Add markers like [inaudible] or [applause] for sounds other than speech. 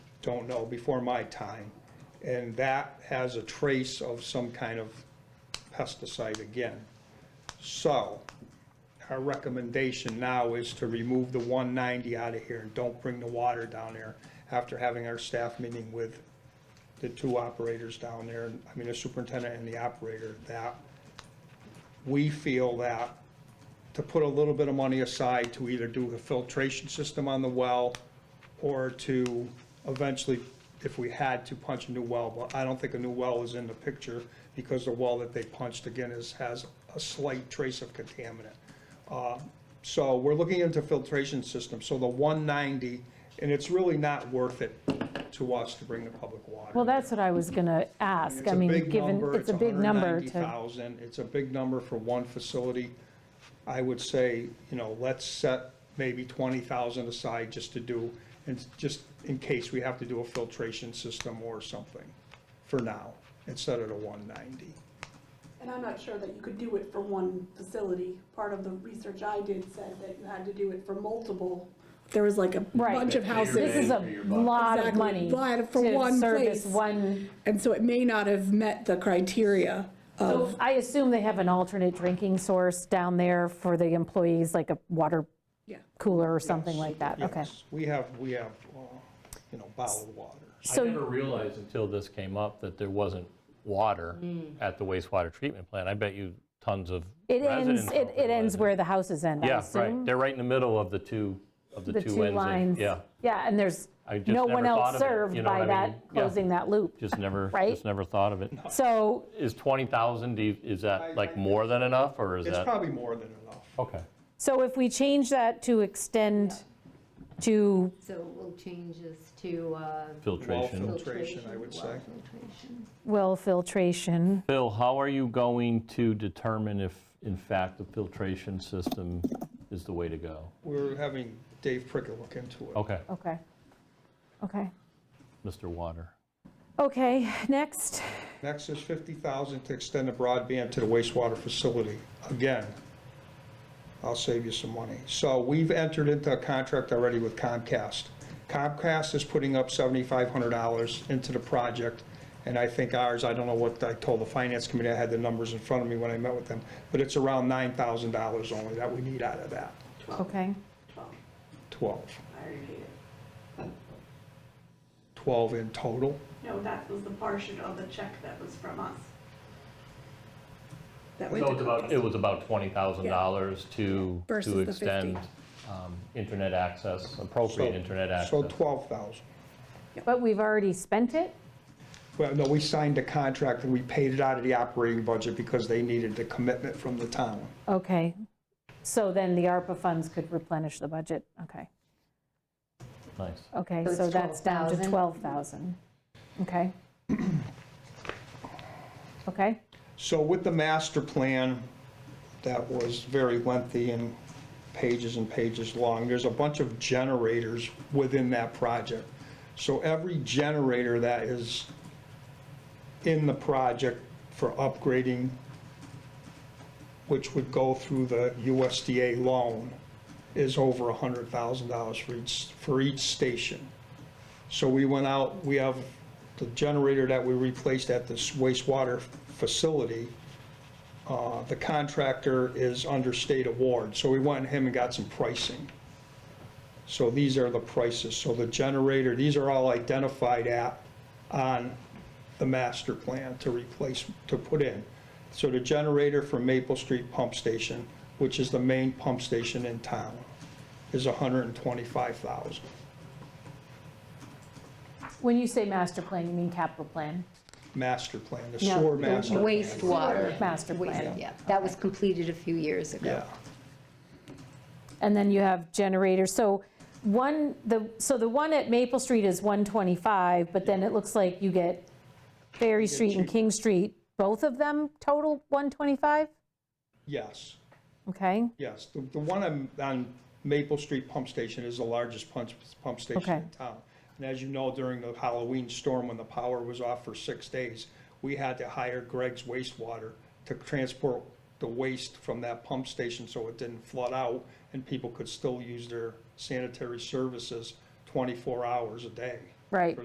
don't know, before my time. And that has a trace of some kind of pesticide again. So our recommendation now is to remove the 190 out of here and don't bring the water down there after having our staff meeting with the two operators down there, I mean, the superintendent and the operator, that we feel that to put a little bit of money aside to either do a filtration system on the well or to eventually, if we had to, punch a new well, but I don't think a new well is in the picture because the well that they punched again is, has a slight trace of contaminant. Uh, So we're looking into filtration system, so the 190, and it's really not worth it to us to bring the public water. Well, that's what I was going to ask. I mean, given, it's a big number to, 190,000, it's a big number for one facility. I would say, you know, let's set maybe 20,000 aside just to do, and just in case we have to do a filtration system or something for now, instead of the 190. And I'm not sure that you could do it for one facility. Part of the research I did said that you had to do it for multiple. There was like a Right. bunch of houses. this is a lot of Exactly, money lot for to one service place. one. And so it may not have met the criteria of, So I assume they have an alternate drinking source down there for the employees, like a water yeah. cooler or something like that. Okay. Yes, We have, we have, uh, you know, bottled water. I So, never realized until this came up that there wasn't water at the wastewater treatment plant. I bet you tons of Mm. it residents. ends, it don't it ends realize where the houses end, I Yeah, assume. right. They're right in the middle of the two, of the two The ends. two of- lines. Yeah, Yeah, and there's I just no never one thought else of it, you served know what I by mean? that, Yeah. closing that loop. just never, [laughs] Right? just never thought of it. So Is 20,000, do you- is I- that like more than enough, or is It's that? probably more than enough. Okay. So if we change that to extend to, So we'll change this to uh, Filtration. Well, Filtration, I would well say. filtration. well, filtration, Bill, how are you going to determine if, in fact, the filtration system is the way to go? We're having Dave Prickett look into it. Okay, okay, okay. Mr. Water. Okay, next, Next is 50,000 to extend the broadband to the wastewater facility. Again, I'll save you some money. So we've entered into a contract already with Comcast. Comcast is putting up $7,500 into the project, and I think ours, I don't know what, I told the finance committee, I had the numbers in front of me when I met with them, but it's around $9,000 only that we need out of that, okay. 12. 12 in total. No, that was the portion of the check that was from us. That went So to it's about, Comcast. it was about $20,000 to, Versus to the extend 50. um, internet access, So- appropriate internet access. So 12,000. But we've already spent it? Well, no, we signed a contract and we paid it out of the operating budget because they needed the commitment from the town. Okay. So then the ARPA funds could replenish the budget, okay. Nice. Okay, So it's so that's down to 12,000. 12,000. Okay. [clears throat] Okay, So with the master plan, that was very lengthy and pages and pages long, there's a bunch of generators within that project. So every generator that is in the project for upgrading, which would go through the USDA loan, is over $100,000 for each, for each station. So we went out, we have the generator that we replaced at this wastewater facility. uh, The contractor is under state award, so we went to him and got some pricing. So these are the prices. So the generator, these are all identified at, on the master plan to replace, to put in. So the generator for Maple Street Pump Station, which is the main pump station in town, is 125,000. when you say master plan, you mean capital plan? master plan, the No, sewer the master. plan. Wastewater. Master Waste- plan. Yeah, that was completed a few years Yeah, ago. And then you have generators, so one, the, so the one at Maple Street is 125, but then it looks like you get Ferry Street and cheap. King Street, both of them total 125? yes, Okay, yes. The, the one on, on Maple Street Pump Station is the largest pump, pump station Okay. in town. And as you know, during the Halloween storm, when the power was off for six days, we had to hire Greg's wastewater to transport the waste from that pump station so it didn't flood out and people could still use their sanitary services 24 hours a day. right.